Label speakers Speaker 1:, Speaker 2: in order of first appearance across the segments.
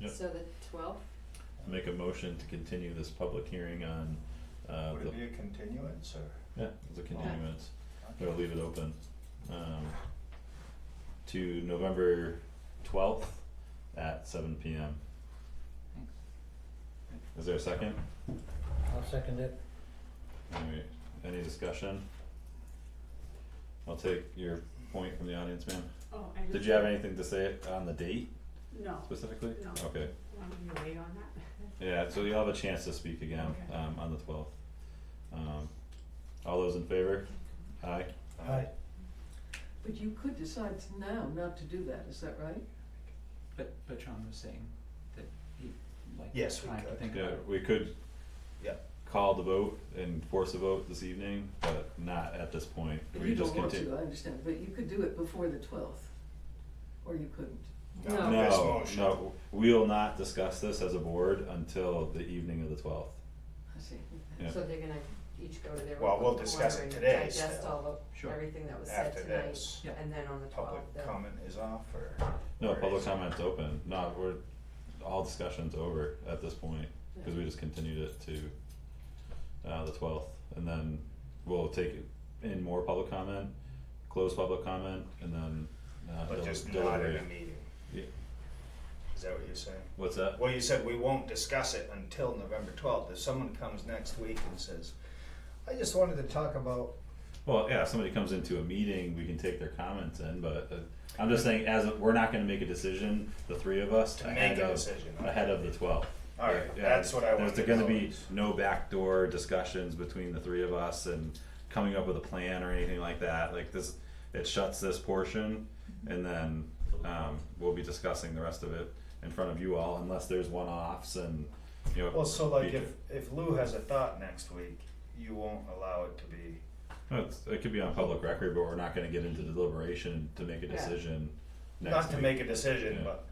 Speaker 1: Yep.
Speaker 2: So the twelfth,
Speaker 1: Make a motion to continue this public hearing on uh
Speaker 3: Would
Speaker 1: the,
Speaker 3: it be a continuance or?
Speaker 1: yeah, the continuance,
Speaker 3: okay.
Speaker 1: we'll leave it open. Um to November twelfth at seven P M. Is there a second?
Speaker 4: I'll second it.
Speaker 1: Alright, any discussion? I'll take your point from the audience, ma'am.
Speaker 5: Oh, I just.
Speaker 1: Did you have anything to say on the date
Speaker 5: No,
Speaker 1: specifically?
Speaker 5: No.
Speaker 1: Okay,
Speaker 5: want me to wait on that?
Speaker 1: yeah, so you'll have a chance to speak again,
Speaker 5: Okay.
Speaker 1: um, on the twelfth. Um, all those in favor? Aye?
Speaker 4: Aye.
Speaker 6: But you could decide now not to do that, is that right?
Speaker 7: But but John was saying that he like
Speaker 3: Yes, we
Speaker 7: time to
Speaker 3: could.
Speaker 7: think
Speaker 1: Yeah,
Speaker 7: about it.
Speaker 1: we could
Speaker 3: Yeah.
Speaker 1: call the vote and force a vote this evening, but not at this point.
Speaker 6: If
Speaker 1: We
Speaker 6: you
Speaker 1: just
Speaker 6: don't want
Speaker 1: continue.
Speaker 6: to, I understand, but you could do it before the twelfth, or you couldn't.
Speaker 3: No.
Speaker 6: No,
Speaker 3: This
Speaker 1: No,
Speaker 3: motion.
Speaker 1: no, we will not discuss this as a board until the evening of the twelfth.
Speaker 6: I see.
Speaker 1: Yeah.
Speaker 2: so they're gonna each go to their
Speaker 3: Well,
Speaker 2: own
Speaker 3: we'll
Speaker 2: corner
Speaker 3: discuss it
Speaker 2: and
Speaker 3: today
Speaker 2: Digest
Speaker 3: still.
Speaker 2: all the,
Speaker 7: Sure.
Speaker 2: everything that was said
Speaker 3: After
Speaker 2: tonight,
Speaker 3: this,
Speaker 7: Yeah.
Speaker 2: and then on the
Speaker 3: public
Speaker 2: twelfth, the,
Speaker 3: comment is off or?
Speaker 1: No,
Speaker 3: or
Speaker 1: public
Speaker 3: is-
Speaker 1: comment's open, no, we're, all discussion's over at this point, cause we just continued it to uh the twelfth, and then we'll take in more public comment, close public comment, and then uh
Speaker 3: But
Speaker 1: del-
Speaker 3: just not in
Speaker 1: deliberate.
Speaker 3: a meeting,
Speaker 1: Yeah,
Speaker 3: is that what you're saying?
Speaker 1: what's that?
Speaker 3: Well, you said we won't discuss it until November twelfth. If someone comes next week and says, I just wanted to talk about,
Speaker 1: Well, yeah, if somebody comes into a meeting, we can take their comments in, but uh, I'm just saying, as, a- we're not gonna make a decision, the three of us,
Speaker 3: To make
Speaker 1: ahead
Speaker 3: a
Speaker 1: of,
Speaker 3: decision, okay.
Speaker 1: ahead of the twelfth.
Speaker 3: Alright, that's what I wanted to
Speaker 1: There's gonna
Speaker 3: know.
Speaker 1: be no backdoor discussions between the three of us and coming up with a plan or anything like that, like this, it shuts this portion, and then, um, we'll be discussing the rest of it in front of you all, unless there's one-offs and, you know.
Speaker 3: well, so like
Speaker 1: future-
Speaker 3: if, if Lou has a thought next week, you won't allow it to be,
Speaker 1: No, it's, it could be on public record, but we're not gonna get into deliberation to make a
Speaker 2: Yeah.
Speaker 1: decision next
Speaker 3: not to
Speaker 1: week.
Speaker 3: make a decision,
Speaker 1: Yeah.
Speaker 3: but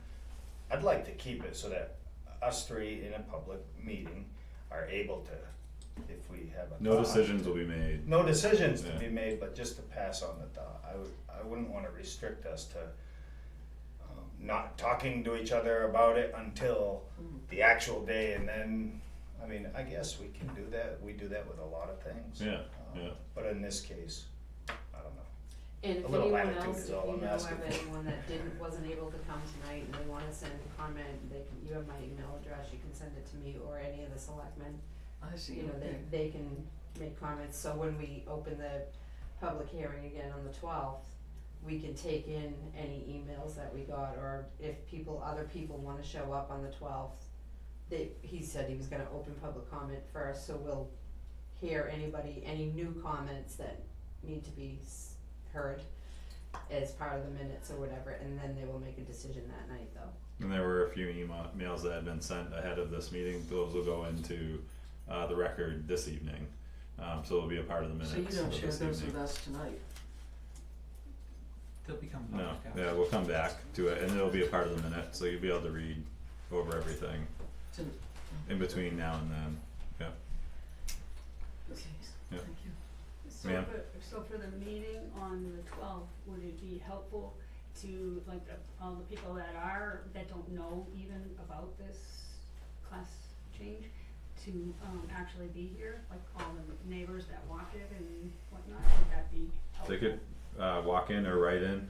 Speaker 3: I'd like to keep it so that us three in a public meeting are able to, if we have a
Speaker 1: No
Speaker 3: thought,
Speaker 1: decisions will be made.
Speaker 3: no decisions to
Speaker 1: Yeah.
Speaker 3: be made, but just to pass on the thought. I would, I wouldn't wanna restrict us to um, not talking to each other about it until
Speaker 2: Mm-hmm.
Speaker 3: the actual day and then, I mean, I guess we can do that. We do that with a lot of things.
Speaker 1: Yeah,
Speaker 3: Um,
Speaker 1: yeah.
Speaker 3: But in this case, I don't know.
Speaker 2: and if
Speaker 3: A little
Speaker 2: anyone
Speaker 3: latitude
Speaker 2: else,
Speaker 3: is
Speaker 2: if you
Speaker 3: all I'm
Speaker 2: know
Speaker 3: asking
Speaker 2: of
Speaker 3: for.
Speaker 2: anyone that didn't, wasn't able to come tonight and they wanna send a comment, they can, you have my email address, you can send it to me or any of the selectmen.
Speaker 6: I see,
Speaker 2: You know,
Speaker 6: okay.
Speaker 2: they, they can make comments, so when we open the public hearing again on the twelfth, we can take in any emails that we got, or if people, other people wanna show up on the twelfth, they, he said he was gonna open public comment first, so we'll hear anybody, any new comments that need to be s- heard as part of the minutes or whatever, and then they will make a decision that night though.
Speaker 1: And there were a few emails that had been sent ahead of this meeting. Those will go into uh, the record this evening. Um, so it'll be a part of the minutes
Speaker 6: So you don't
Speaker 1: of
Speaker 6: share
Speaker 1: this
Speaker 6: those
Speaker 1: evening.
Speaker 6: with us tonight?
Speaker 7: They'll become public
Speaker 1: No,
Speaker 7: after.
Speaker 1: yeah, we'll come back to it, and it'll be a part of the minute, so you'll be able to read over everything
Speaker 6: Tonight.
Speaker 1: in between now and then.
Speaker 6: Okay,
Speaker 1: Yeah.
Speaker 6: thank you.
Speaker 5: So
Speaker 1: Ma'am?
Speaker 5: for, so for the meeting on the twelfth, would it be helpful to, like, the, all the people that are, that don't know even about this class change, to, um, actually be here, like all the neighbors that walk it and whatnot, would that be helpful?
Speaker 1: They could uh, walk in or write in.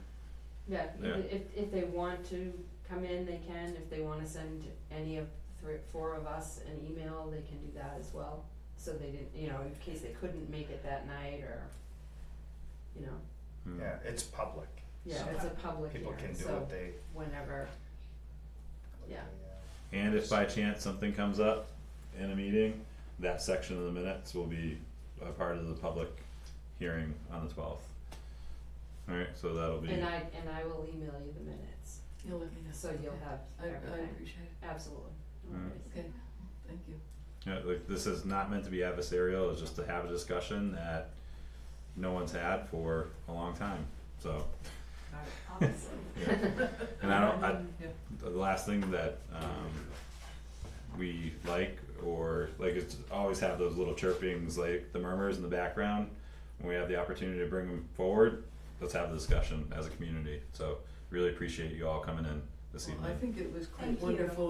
Speaker 2: Yeah,
Speaker 1: Yeah.
Speaker 2: even if, if they want to come in, they can, if they wanna send any of three, four of us an email, they can do that as well. So they didn't, you know, in case they couldn't make it that night or, you know,
Speaker 1: Hmm.
Speaker 3: Yeah, it's public.
Speaker 2: yeah,
Speaker 3: So
Speaker 2: it's a public
Speaker 3: People can
Speaker 2: hearing,
Speaker 3: do
Speaker 2: so
Speaker 3: what they.
Speaker 2: whenever,
Speaker 3: what
Speaker 2: Yeah.
Speaker 3: they, uh,
Speaker 1: And if by chance something comes up in a meeting, that section of the minutes will be a part of the public hearing on the twelfth. Alright, so that'll be,
Speaker 2: and I, and I will email you the minutes,
Speaker 6: You'll let me know.
Speaker 2: so you'll
Speaker 6: Okay.
Speaker 2: have
Speaker 6: I, I
Speaker 2: everything,
Speaker 6: appreciate it,
Speaker 2: absolutely, no
Speaker 1: Mm.
Speaker 2: worries.
Speaker 6: okay, thank you.
Speaker 1: yeah, like, this is not meant to be adversarial, it's just to have a discussion that no one's had for a long time, so.
Speaker 7: Got it.
Speaker 2: Obviously.
Speaker 1: yeah. And I don't, I,
Speaker 7: Yeah.
Speaker 1: the last thing that um we like or like it's always have those little chirpings like the murmurs in the background when we have the opportunity to bring them forward let's have the discussion as a community so really appreciate you all coming in this
Speaker 6: Well,
Speaker 1: evening
Speaker 6: I think it was
Speaker 5: Thank
Speaker 6: quite
Speaker 5: you.
Speaker 6: wonderful